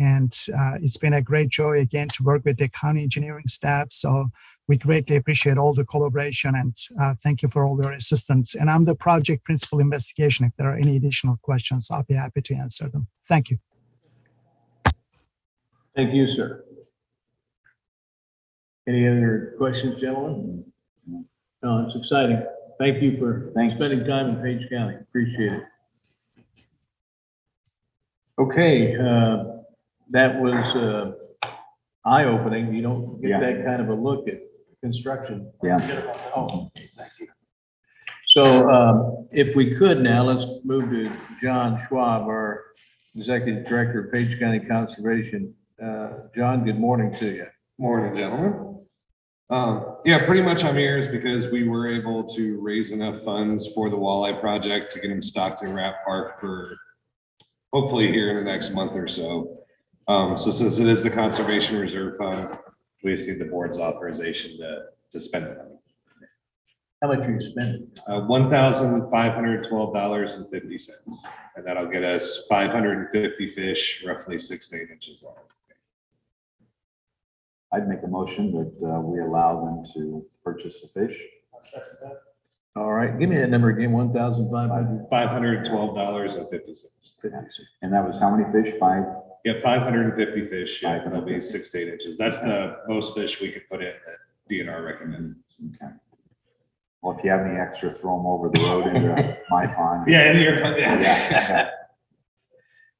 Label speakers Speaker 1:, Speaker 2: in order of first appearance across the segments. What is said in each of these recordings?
Speaker 1: and uh, it's been a great joy again to work with the county engineering staff. So we greatly appreciate all the collaboration and uh, thank you for all your assistance. And I'm the project principal investigation. If there are any additional questions, I'll be happy to answer them. Thank you.
Speaker 2: Thank you, sir. Any other questions, gentlemen? No, it's exciting. Thank you for spending time in Page County. Appreciate it. Okay, uh, that was uh, eye-opening. You don't get
Speaker 3: Yeah.
Speaker 2: that kind of a look at construction.
Speaker 3: Yeah.
Speaker 2: Oh, thank you. So um, if we could now, let's move to John Schwab, our Executive Director of Page County Conservation. Uh, John, good morning to you.
Speaker 4: Morning, gentlemen. Um, yeah, pretty much I'm here is because we were able to raise enough funds for the walleye project to get them stocked in Rat Park for hopefully here in the next month or so. Um, so since it is the Conservation Reserve Fund, we just need the board's authorization to, to spend the money.
Speaker 2: How much are you spending?
Speaker 4: Uh, one thousand five hundred twelve dollars and fifty cents, and that'll get us five hundred and fifty fish, roughly six to eight inches long.
Speaker 3: I'd make a motion that uh, we allow them to purchase the fish.
Speaker 2: All right, give me that number again, one thousand five hundred
Speaker 4: Five hundred twelve dollars and fifty cents.
Speaker 2: fifty-six.
Speaker 3: And that was how many fish? Five?
Speaker 4: Yeah, five hundred and fifty fish, yeah, that'll be six to eight inches. That's the most fish we could put in that DNR recommended.
Speaker 3: Okay. Well, if you have any extra, throw them over the road into my pond.
Speaker 4: Yeah, in your, yeah.
Speaker 3: Yeah.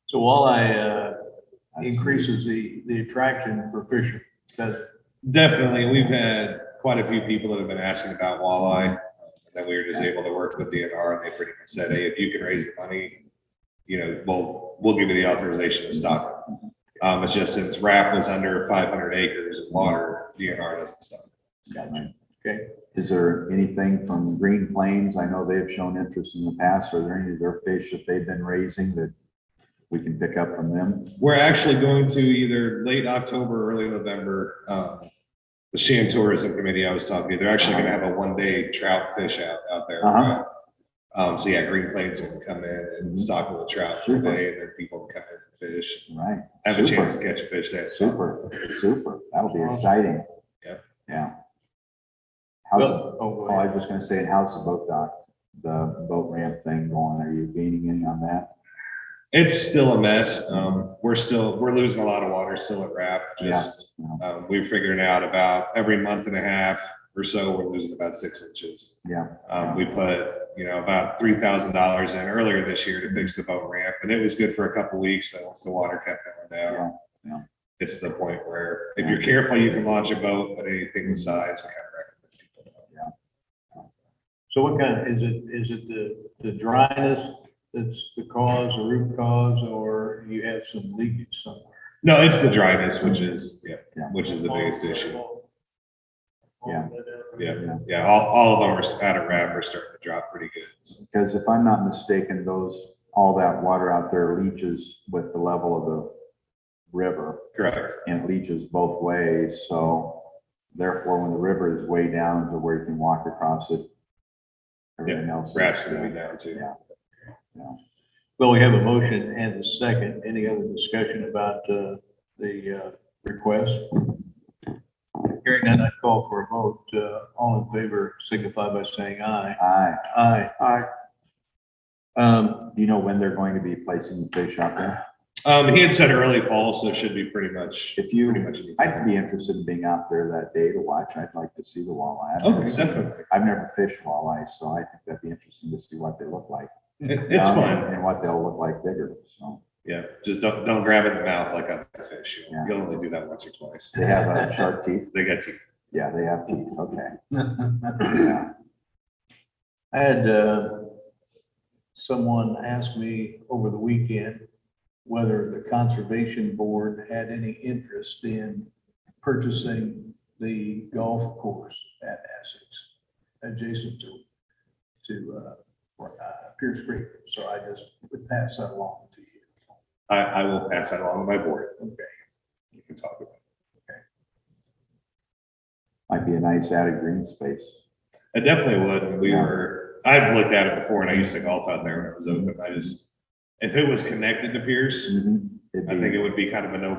Speaker 2: So walleye, uh, increases the, the attraction for fishing. That's,
Speaker 4: Definitely, we've had quite a few people that have been asking about walleye. And then we were just able to work with DNR and they pretty much said, hey, if you can raise the money, you know, we'll, we'll give you the authorization to stock. it." Um, it's just since RAP was under five hundred acres of water, DNR doesn't stop.
Speaker 2: Okay.
Speaker 3: Is there anything from Green Plains? I know they have shown interest in the past. Are there any of their fish that they've been raising that we can pick up from them?
Speaker 4: We're actually going to either late October, early November, um, the Shan Tourism Committee I was talking to, they're actually gonna have a one-day trout fish out, out there.
Speaker 3: Uh-huh. Mm-hmm.
Speaker 4: Um, so yeah, Green Plains can come in and stock with trout for a day, and then people can come in and fish,
Speaker 3: Right.
Speaker 4: have a chance to
Speaker 3: Super.
Speaker 4: catch a fish there.
Speaker 3: Super, super. That'll be exciting.
Speaker 4: Yep.
Speaker 3: Yeah. How's,
Speaker 2: well, oh, go
Speaker 3: Oh, I
Speaker 2: ahead.
Speaker 3: was just gonna say, and how's the boat dock, the boat ramp thing going? Are you gaining any on that?
Speaker 4: It's still a mess, um, we're still, we're losing a lot of water still at RAP, just,
Speaker 3: Yeah, no.
Speaker 4: um, we're figuring out about every month and a half or so, we're losing about six inches.
Speaker 3: Yeah,
Speaker 4: Um, we put, you know, about three thousand dollars in earlier this year to fix the boat ramp, and it was good for a couple weeks, but once the water kept going down.
Speaker 3: Yeah, yeah.
Speaker 4: It's the point where if you're careful, you can launch a boat, but anything with size, we kind of recommend people don't.
Speaker 2: So what kind, of is it, is it the, the dryness that's the cause, the root cause, or you have some leakage somewhere?
Speaker 4: No, it's the dryness, which is, yeah,
Speaker 3: Yeah.
Speaker 4: which is the biggest issue.
Speaker 3: Yeah.
Speaker 2: uh,
Speaker 4: Yeah,
Speaker 3: Yeah.
Speaker 4: yeah, all, all of them are out of wrap, are starting to drop pretty good. so.
Speaker 3: because if I'm not mistaken, those, all that water out there leaches with the level of the river
Speaker 4: Correct,
Speaker 3: and it leaches both ways, so therefore when the river is way down to where you can walk across it, everything else. is,
Speaker 4: wrap's
Speaker 3: uh,
Speaker 4: gonna be down too.
Speaker 3: Yeah,
Speaker 2: Well, we have a motion and a second. Any other discussion about uh, the uh, request? Hearing none, I call for a vote. Uh, All in favor signify by saying aye.
Speaker 3: aye.
Speaker 2: Aye. Aye. Um,
Speaker 3: Do you know when they're going to be placing the fish out there?
Speaker 4: Um, he had said early fall, so it should be pretty much,
Speaker 3: If you,
Speaker 4: pretty much. any
Speaker 3: I'd
Speaker 4: time.
Speaker 3: be interested in being out there that day to watch. I'd like to see the walleye. I've never
Speaker 4: Okay,
Speaker 3: seen-
Speaker 4: definitely.
Speaker 3: I've never fished walleye, so I think that'd be interesting to see what they look like.
Speaker 4: It- It's
Speaker 3: Um,
Speaker 4: fun.
Speaker 3: And what they'll look like bigger, so.
Speaker 4: Yeah, just don't, don't grab it in the mouth like a fish. You'll-
Speaker 3: Yeah.
Speaker 4: You'll only do that once or twice.
Speaker 3: They have uh, sharp teeth?
Speaker 4: They got you.
Speaker 3: Yeah, they have teeth, okay. Yeah.
Speaker 2: I had uh, someone ask me over the weekend whether the Conservation Board had any interest in purchasing the golf course at Essex, adjacent to, to uh, uh, Pierce Creek. So I just would pass that along to you.
Speaker 4: I, I will pass that along to my board.
Speaker 2: Okay.
Speaker 4: You can talk about
Speaker 3: Might be a nice added green space.
Speaker 4: it. I definitely would. and We
Speaker 3: Yeah.
Speaker 4: were, I've looked at it before and I used to golf out there when it was open. I just, if it was connected to Pierce,
Speaker 3: Mhm. It'd
Speaker 4: I
Speaker 3: be-
Speaker 4: think it would be kind of a no